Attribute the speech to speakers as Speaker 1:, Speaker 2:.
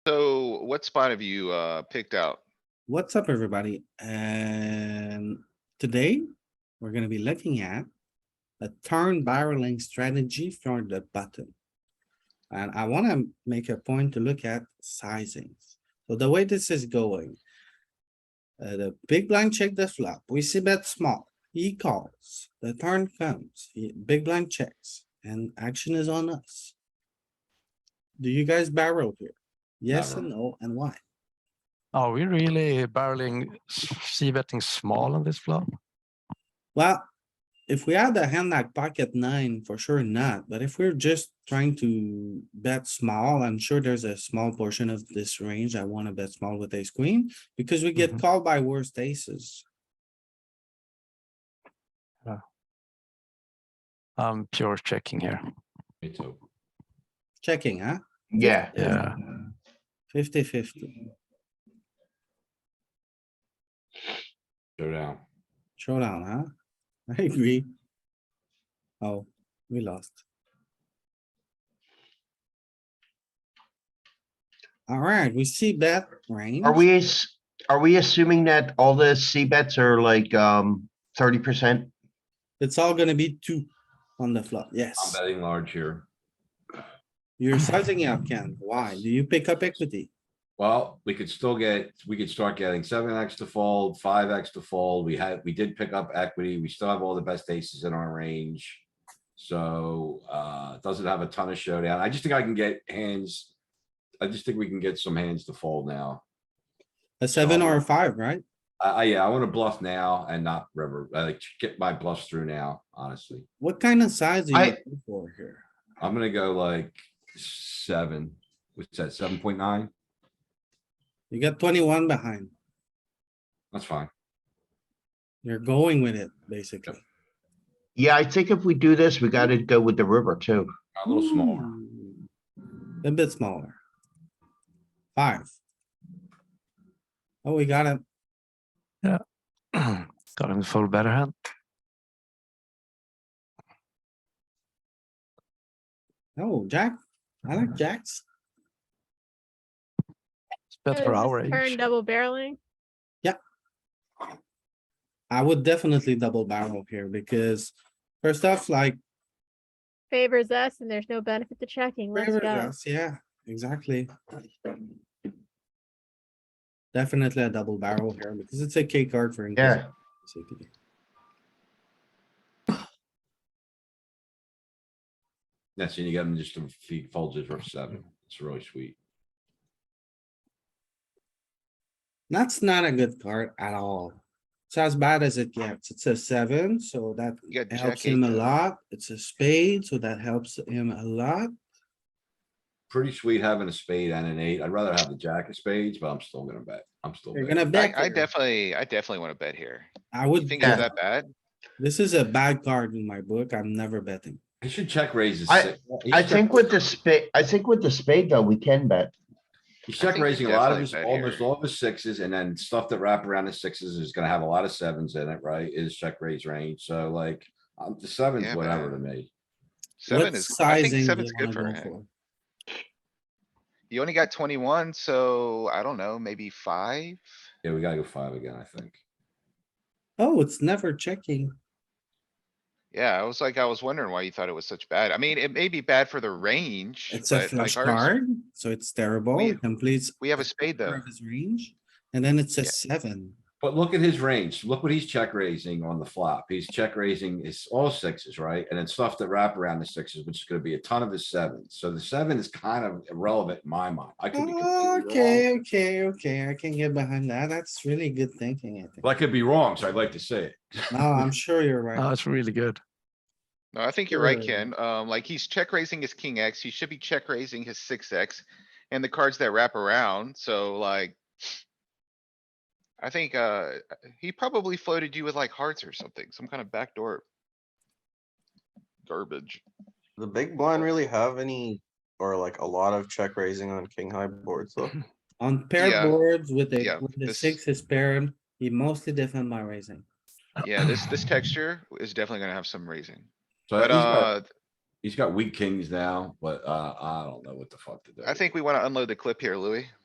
Speaker 1: So what spot have you, uh, picked out?
Speaker 2: What's up, everybody? And today, we're gonna be looking at a turn barreling strategy for the button. And I wanna make a point to look at sizings. So the way this is going. uh, the big blind check the flop. We see bet small. He calls. The turn comes. He- Big blind checks and action is on us. Do you guys barrel here? Yes and no, and why?
Speaker 3: Are we really barreling, c betting small on this flop?
Speaker 2: Well, if we had a hand like pocket nine, for sure not, but if we're just trying to bet small, I'm sure there's a small portion of this range I wanna bet small with ace queen. Because we get
Speaker 3: Mhm.
Speaker 2: called by worst aces.
Speaker 3: I'm pure checking here.
Speaker 4: Me too.
Speaker 2: Checking, huh?
Speaker 5: Yeah.
Speaker 3: Yeah.
Speaker 2: Fifty fifty,
Speaker 4: Showdown.
Speaker 2: showdown, huh? I agree. Oh, we lost. Alright, we see bet range.
Speaker 5: Are we, ass- are we assuming that all the C bets are like, um, thirty percent?
Speaker 2: It's all gonna be two on the flop, yes.
Speaker 4: I'm betting large here. Oh
Speaker 2: You're sizing up, Ken. Why? Do you pick up equity?
Speaker 4: Well, we could still get, we could start getting seven X to fold, five X to fold. We had, we did pick up equity. We still have all the best aces in our range. So, uh, doesn't have a ton of showdown. I just think I can get hands. I just think we can get some hands to fold now.
Speaker 2: A seven or a
Speaker 4: Oh.
Speaker 2: five, right?
Speaker 4: I, I, yeah, I wanna bluff now and not river, uh, like, get my bluffs through now, honestly.
Speaker 2: What kind of size are
Speaker 5: I-
Speaker 2: you looking for here?
Speaker 4: I'm gonna go like seven, what's that, seven point nine?
Speaker 2: You got twenty-one behind.
Speaker 4: That's fine.
Speaker 2: You're going with it, basically.
Speaker 5: Yeah, I think if we do this, we gotta go with the river too.
Speaker 4: A little smaller.
Speaker 2: Hmm. A bit smaller. Five. Oh, we got it.
Speaker 3: Got him to fold better hand.
Speaker 2: Oh, Jack. I like jacks.
Speaker 3: It's better for
Speaker 6: Is this
Speaker 3: our
Speaker 6: Turn
Speaker 3: age.
Speaker 6: double barreling.
Speaker 2: I would definitely double barrel here because first off, like,
Speaker 6: Favors us and there's no benefit to checking. Let's
Speaker 2: favors
Speaker 6: go.
Speaker 2: us, yeah, exactly. Definitely a double barrel here because it's a K card for. Inquisition,
Speaker 5: Yeah.
Speaker 2: basically.
Speaker 4: That's it. You got him just a few folds it for seven. It's really sweet.
Speaker 2: That's not a good card at all. It's as bad as it gets. It's a seven, so that
Speaker 1: You got
Speaker 2: helps
Speaker 1: jack
Speaker 2: him
Speaker 1: eight
Speaker 2: a
Speaker 1: there.
Speaker 2: lot. It's a spade, so that helps him a lot.
Speaker 4: Pretty sweet having a spade and an eight. I'd rather have the jack of spades, but I'm still gonna bet. I'm still.
Speaker 2: You're
Speaker 4: betting.
Speaker 2: gonna
Speaker 1: I,
Speaker 2: bet.
Speaker 1: I
Speaker 2: here.
Speaker 1: definitely, I definitely wanna bet here.
Speaker 2: I
Speaker 1: You
Speaker 2: would,
Speaker 1: think it's
Speaker 2: bet.
Speaker 1: that bad?
Speaker 2: this is a bad card in my book. I'm never betting.
Speaker 4: He should check raises.
Speaker 5: I- I think with the spade, I think with the spade though, we can bet.
Speaker 4: He's
Speaker 1: I think
Speaker 4: check
Speaker 1: you
Speaker 4: raising a lot of
Speaker 1: definitely
Speaker 4: his,
Speaker 1: bet
Speaker 4: almost
Speaker 1: here.
Speaker 4: all of his sixes and then stuff that wrap around his sixes is gonna have a lot of sevens in it, right? Is check raise range. So like, um, the
Speaker 1: Yeah,
Speaker 4: sevens, whatever to
Speaker 1: man.
Speaker 4: me.
Speaker 1: Seven
Speaker 2: What
Speaker 1: is, I
Speaker 2: sizing
Speaker 1: think
Speaker 2: do
Speaker 1: seven's
Speaker 2: you
Speaker 1: good
Speaker 2: wanna
Speaker 1: for
Speaker 2: go
Speaker 1: him. You only got twenty-one, so I don't know, maybe five?
Speaker 4: Yeah, we gotta go five again, I think.
Speaker 2: Oh, it's never checking.
Speaker 1: Yeah, I was like, I was wondering why you thought it was such bad. I mean, it may be bad for the range.
Speaker 2: It's a
Speaker 1: but, like,
Speaker 2: flush
Speaker 1: ours-
Speaker 2: card, so it's terrible.
Speaker 1: We-
Speaker 2: It completes.
Speaker 1: We have a
Speaker 2: a
Speaker 1: spade
Speaker 2: quarter
Speaker 1: though.
Speaker 2: of His range, and then it's a
Speaker 1: Yeah.
Speaker 2: seven.
Speaker 4: But look at his range. Look what he's check raising on the flop. He's check raising his all sixes, right? And then stuff that wrap around the sixes, which is gonna be a ton of his sevens. So the seven is kind of irrelevant in my mind. I could be completely wrong.
Speaker 2: Okay, okay, okay. I can get behind that. That's really good thinking, I think.
Speaker 4: But I could be wrong, so I'd like to say it.
Speaker 2: No, I'm sure you're right.
Speaker 3: Oh, it's really good.
Speaker 1: No, I think you're right,
Speaker 2: Sure.
Speaker 1: Ken. Um, like he's check raising his king X. He should be check raising his six X and the cards that wrap around. So like. I think, uh, he probably floated you with like hearts or something, some kind of backdoor. Garbage.
Speaker 7: The big blind really have any, or like a lot of check raising on king high boards though.
Speaker 2: On paired
Speaker 1: Yeah.
Speaker 2: boards with the,
Speaker 1: Yeah,
Speaker 2: with the
Speaker 1: this-
Speaker 2: six is paired, he mostly defend by raising.
Speaker 1: Yeah, this, this texture is definitely gonna have some raising,
Speaker 4: So
Speaker 1: but,
Speaker 4: he's got-
Speaker 1: uh,
Speaker 4: He's got weak kings now, but, uh, I don't know what the fuck to do.
Speaker 1: I think we wanna unload the clip here, Louis.